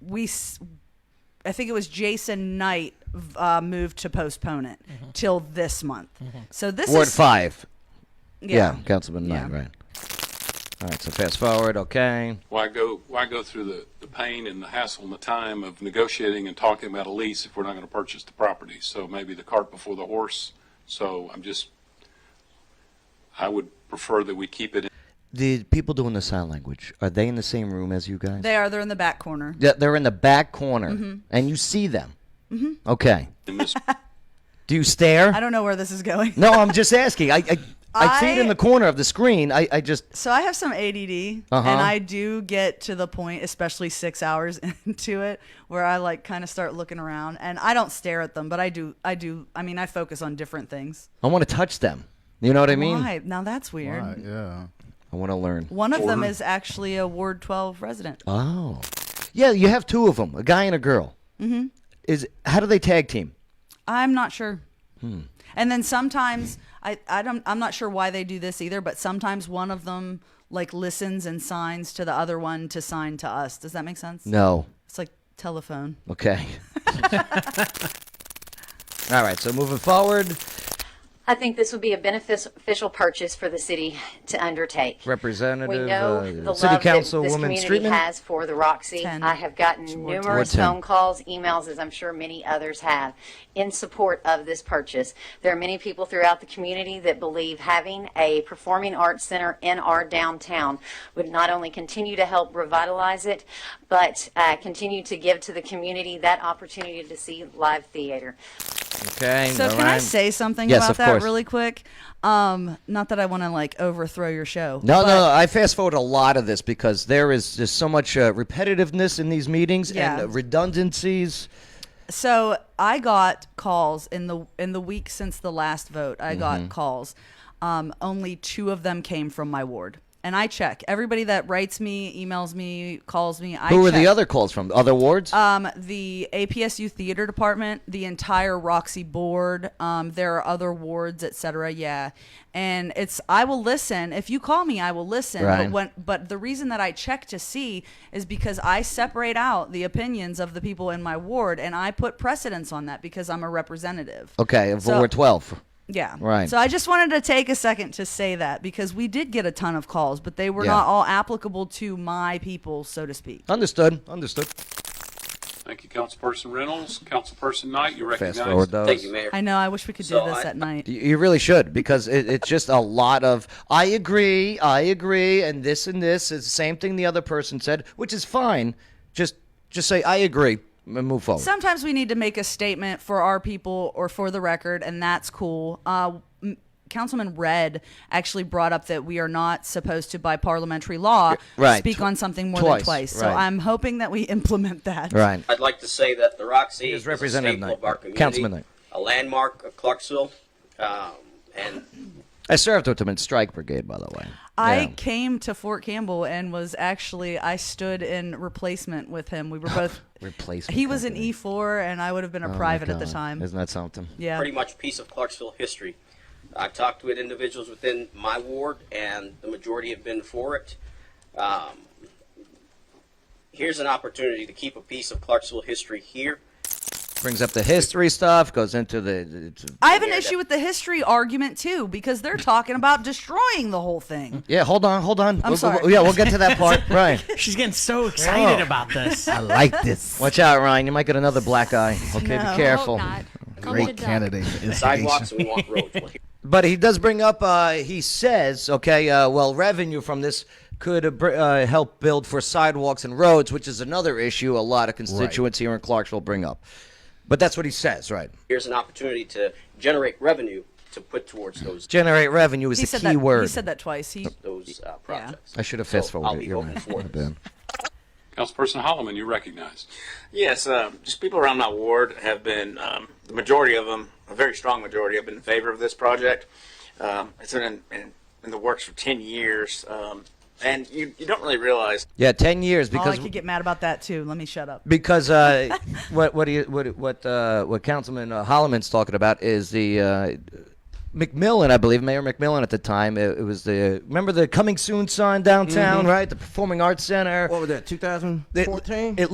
we s- I think it was Jason Knight v- uh, moved to postpone it till this month. So this Ward is five. yeah. Councilman Knight, Yeah. right. All right, so fast forward, okay. Why go, why go through the, the pain and the hassle and the time of negotiating and talking about a lease if we're not going to purchase the property? So maybe the cart before the horse. So I'm just, I would prefer that we keep it The people doing the sign language, are they in the same room as you guys? They are they're Mm-hmm. in the back corner. They're, they're in the back corner, and you see them. Mm-hmm. Okay. in this Do you stare? I don't know where this is going. No, I'm just asking. I, I, I see it in I- the corner of the screen. I, I just So I have some ADD, Uh-huh. and I do get to the point, especially six hours into it, where I like kind of start looking around, and I don't stare at them, but I do, I do. I mean, I focus on different things. I want to touch them. You know what I mean? Why? Now that's weird. Right, yeah. I want to learn. One of them is actually a Ward 12 resident. Oh, yeah. You have two of them, a guy and a girl. Mm-hmm. Is how do they tag team? I'm not sure. Hmm. And then sometimes I, I don't, I'm not sure why they do this either, but sometimes one of them like listens and signs to the other one to sign to us. Does that make sense? No. It's like telephone. Okay. All right. So moving forward, I think this would be a beneficial purchase for the city to undertake. Representative, We uh, know the City love that this Councilwoman community Streetman? has for the Roxy. Ten. I have gotten numerous ten. phone calls, emails, as I'm sure many others have, in support of this purchase. There are many people throughout the community that believe having a performing arts center in our downtown would not only continue to help revitalize it, but uh, continue to give to the community that opportunity to see live theater. okay. So all can I right. say something Yes, about of that course. really quick? Um, not that I want to like overthrow your show. No, no, I fast forward a lot of this because there is just so much uh, repetitiveness in these meetings and Yeah. uh, redundancies. So I got calls in the in the week since the last vote. I Mm-hmm. got calls. Um, only two of them came from my ward, and I check everybody that writes me, emails me, calls me. I Who were the check. other calls from? Other wards? Um, the APSU theater department, the entire Roxy board, um, there are other wards, et cetera. Yeah, and it's I will listen if you call me, I will listen. Right. But when but the reason that I check to see is because I separate out the opinions of the people in my ward, and I put precedence on that because I'm a representative. okay, of so- Ward 12. Yeah. Right. So I just wanted to take a second to say that because we did get a ton of calls, but they were Yeah. not all applicable to my people, so to speak. Understood. Understood. Thank you, Councilperson Reynolds. Councilperson Knight, you recognize. Fast forward those. Thank you, Mayor. I know. I wish we could do So this I- at night. You- You really should because it, it's just a lot of I agree, I agree, and this and this is the same thing the other person said, which is fine. Just just say I agree and move forward. sometimes we need to make a statement for our people or for the record, and that's cool. Uh, m- Councilman Red actually brought up that we are not supposed to, by parliamentary law, right. speak on something more Twice, than twice. So right. I'm hoping that we implement that. right. I'd like to say that the Roxy is is a Representative staple Knight. of our community. Councilman Knight. A landmark of Clarksville, um, and I served with them in Strike Brigade, by the way. I Yeah. came to Fort Campbell and was actually I stood in replacement with him. We were both Replacement He was an company. E four, and I would have been a Oh my private at the God. time. Isn't that something? yeah. pretty much piece of Clarksville history. I've talked with individuals within my ward, and the majority have been for it. Um, here's an opportunity to keep a piece of Clarksville history here. Brings up the history stuff, goes into the. the- the- I have an Yeah, issue that- with the history argument too because they're talking about destroying the whole thing. yeah, hold on, hold on. We'll- sorry. we'll- yeah, we'll get to that part. right. She's getting so excited Whoa. about this. I like this. Watch out, Ryan. You might get another black eye. Okay, be careful. Great candidate. for Sidewalks instigation. and we want roads. Well, here- But he does bring up. Uh, he says, okay, uh, well, revenue from this could uh, br- uh, help build for sidewalks and roads, which is another issue a lot of constituents here in Clarksville bring up. But that's what he says, right? Here's an opportunity to generate revenue to put towards those Generate revenue is He the said key that word. he said that twice. He those uh, projects. I should have fast So I'll forwarded. be it. You're voting right. for My it. bad. Councilperson Holloman, you recognize. Yes, um, just people around my ward have been, um, the majority of them, a very strong majority, have been in favor of this project. Um, it's been in, in, in the works for 10 years. Um, and you, you don't really realize Yeah, ten years Oh, I because could get mad about that too. Let me shut up. because uh, what what he, what what uh, what Councilman uh, Holloman's talking about is the uh, McMillan, I believe Mayor McMillan at the time. It, it was the remember the coming soon sign downtown, right? The Performing Arts Center. What was that? 2014. it